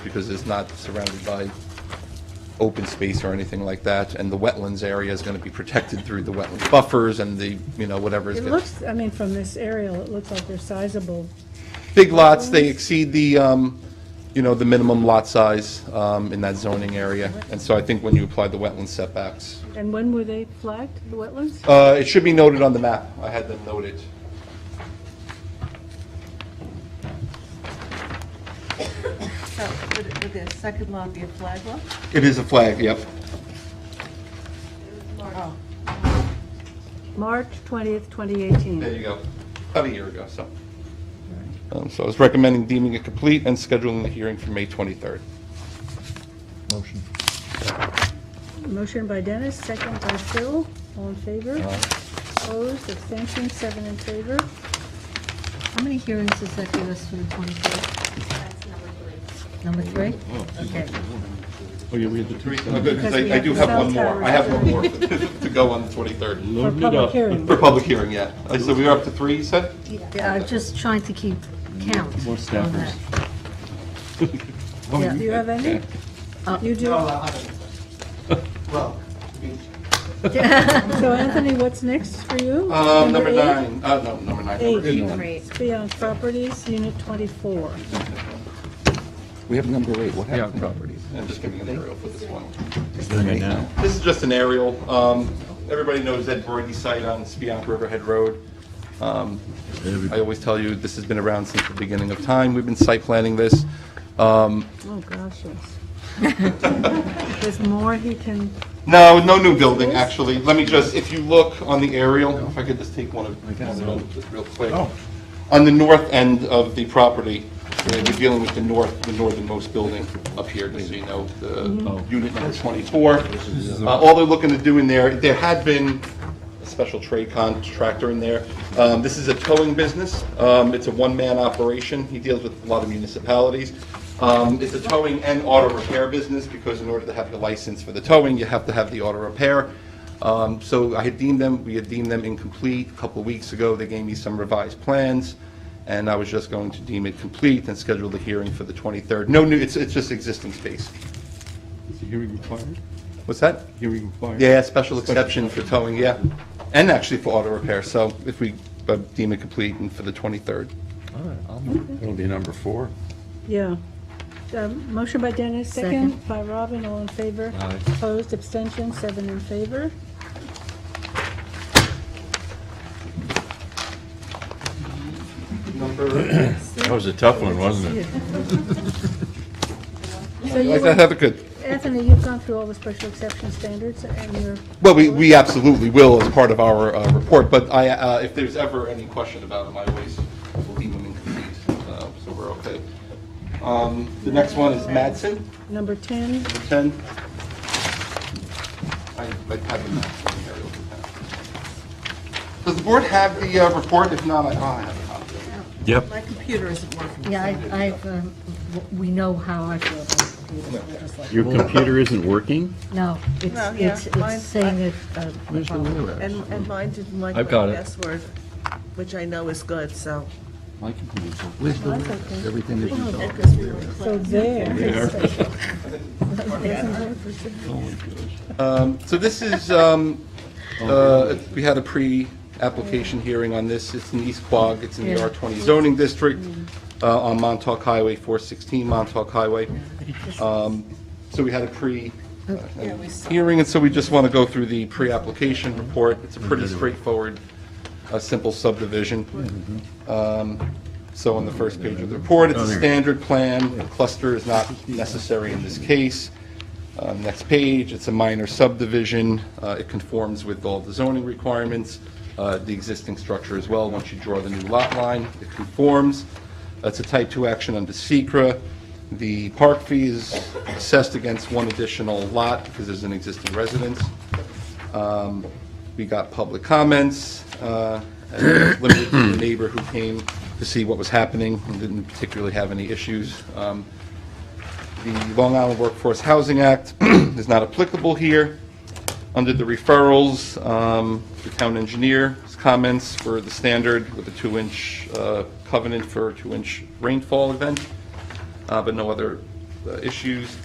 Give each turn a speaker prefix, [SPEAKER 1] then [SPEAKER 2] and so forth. [SPEAKER 1] because it's not surrounded by open space or anything like that, and the wetlands area is going to be protected through the wetland buffers and the, you know, whatever. is
[SPEAKER 2] It
[SPEAKER 1] gonna-
[SPEAKER 2] looks, I mean, from this aerial, it looks like they're sizable.
[SPEAKER 1] Big lots, they exceed the, um, you know, the minimum lot size um, in that zoning area. And so I think when you apply the wetland setbacks,
[SPEAKER 2] And when were they flagged, the wetlands?
[SPEAKER 1] uh, it should be noted on the map. I had them noted.
[SPEAKER 3] So would, would Oh, the second lot be a flag lot?
[SPEAKER 1] It is a flag, yep.
[SPEAKER 3] Oh,
[SPEAKER 2] March 20th, 2018.
[SPEAKER 1] There you go. About a year ago, so. Um, So I was recommending deeming it complete and scheduling the hearing for May 23rd.
[SPEAKER 4] Motion.
[SPEAKER 2] Motion by Dennis, second by Phil, all in favor? Opposed, abstentions, seven in favor.
[SPEAKER 3] How many hearings does that give us for the 23rd? Number three? Okay.
[SPEAKER 4] Oh, you read the two.
[SPEAKER 1] Because
[SPEAKER 2] we
[SPEAKER 1] I I do
[SPEAKER 2] have
[SPEAKER 1] have one
[SPEAKER 2] cell
[SPEAKER 1] more.
[SPEAKER 2] towers.
[SPEAKER 1] I have one more to go on the 23rd
[SPEAKER 2] For public hearing.
[SPEAKER 1] for public hearing, yeah. Uh, So we were up to three, you said?
[SPEAKER 3] Yeah, I'm just trying to keep count.
[SPEAKER 4] More
[SPEAKER 3] on that.
[SPEAKER 4] staffers.
[SPEAKER 2] Do you have any? You do?
[SPEAKER 5] Well, I mean,
[SPEAKER 2] So Anthony, what's next for you?
[SPEAKER 1] Um, Number
[SPEAKER 2] eight?
[SPEAKER 1] nine, uh, no, number nine. number
[SPEAKER 2] Eight.
[SPEAKER 1] eight.
[SPEAKER 2] It's beyond properties, unit 24.
[SPEAKER 6] We have number eight, what
[SPEAKER 4] Yeah,
[SPEAKER 6] happened?
[SPEAKER 4] properties.
[SPEAKER 1] I'm just giving an aerial for this one.
[SPEAKER 4] Doing it now.
[SPEAKER 1] This is just an aerial. Um, Everybody knows Ed Broidy's site on Spiant Riverhead Road. Um, I always tell you, this has been around since the beginning of time. We've been site planning this. Um,
[SPEAKER 2] Oh, gosh, yes. There's more he can,
[SPEAKER 1] No, no new building, actually. Let me just, if you look on the aerial, if I Oh. could just take one of, one of them just real quick. On the north end of the property, uh, we're dealing with the north, the northernmost building up here, just so you know, the unit number 24. Mm-hmm. Uh, All they're looking to do in there, there had been a special trade contractor in there. Um, This is a towing business. Um, It's a one-man operation. He deals with a lot of municipalities. Um, It's a towing and auto repair business, because in order to have the license for the towing, you have to have the auto repair. Um, So I had deemed them, we had deemed them incomplete a couple of weeks ago. They gave me some revised plans, and I was just going to deem it complete and schedule the hearing for the 23rd. No new, it's, it's just existing space.
[SPEAKER 4] Is the hearing required?
[SPEAKER 1] What's that?
[SPEAKER 4] Hearing required?
[SPEAKER 1] Yeah, special exception for towing, yeah, and actually for auto repair, so if we uh, deem it complete and for the 23rd.
[SPEAKER 6] It'll be number four.
[SPEAKER 2] yeah. Um, Motion by Dennis, second
[SPEAKER 3] Second.
[SPEAKER 2] by Robin, all in favor?
[SPEAKER 4] Aye.
[SPEAKER 2] Opposed, abstentions, seven in favor.
[SPEAKER 6] That was a tough one, wasn't it?
[SPEAKER 2] So you
[SPEAKER 1] Like
[SPEAKER 2] were-
[SPEAKER 1] that, Heather, good.
[SPEAKER 2] Anthony, you've gone through all the special exception standards and you're,
[SPEAKER 1] Well, we, we absolutely will as part of our uh, report, but I, uh, if there's ever any question about them, I always will leave them incomplete, uh, so we're okay. Um, The next one is Madsen,
[SPEAKER 2] number 10,
[SPEAKER 1] 10. I I have the Madsen aerial for that. Does the board have the uh, report? If not, I oh, I have a copy.
[SPEAKER 6] Yep.
[SPEAKER 3] My computer isn't working. Yeah, I- I've, um, w- we know how I feel about computers. I just like-
[SPEAKER 7] Your computer isn't working?
[SPEAKER 3] No,
[SPEAKER 8] No,
[SPEAKER 3] it's,
[SPEAKER 8] yeah,
[SPEAKER 3] it's it's
[SPEAKER 8] mine's-
[SPEAKER 3] saying it. uh,
[SPEAKER 4] Where's the Windows?
[SPEAKER 8] And, and mine didn't like my
[SPEAKER 4] I've got it.
[SPEAKER 8] password, which I know is good, so.
[SPEAKER 4] My computer's open. Where's the Windows? Everything is resolved.
[SPEAKER 2] so there.
[SPEAKER 1] Um, So this is, um, uh, we had a pre-application hearing on this. It's in East Quogue. It's in the R20 zoning district uh, on Montauk Highway, 416 Montauk Highway. Um, So we had a pre, uh, hearing, and so we just want to go through the pre-application report. It's a pretty straightforward, uh, simple subdivision. Um, So on the first page of the report, it's a standard plan. A cluster is not necessary in this case. Uh, Next page, it's a minor subdivision. Uh, It conforms with all the zoning requirements, uh, the existing structure as well. Once you draw the new lot line, it conforms. That's a type 2 action under secra. The park fee is assessed against one additional lot because there's an existing residence. Um, We got public comments, uh, and limited to the neighbor who came to see what was happening and didn't particularly have any issues. Um, The Long Island Workforce Housing Act is not applicable here. Under the referrals, um, the town engineer's comments were the standard with a two-inch uh, covenant for a two-inch rainfall event, uh, but no other uh, issues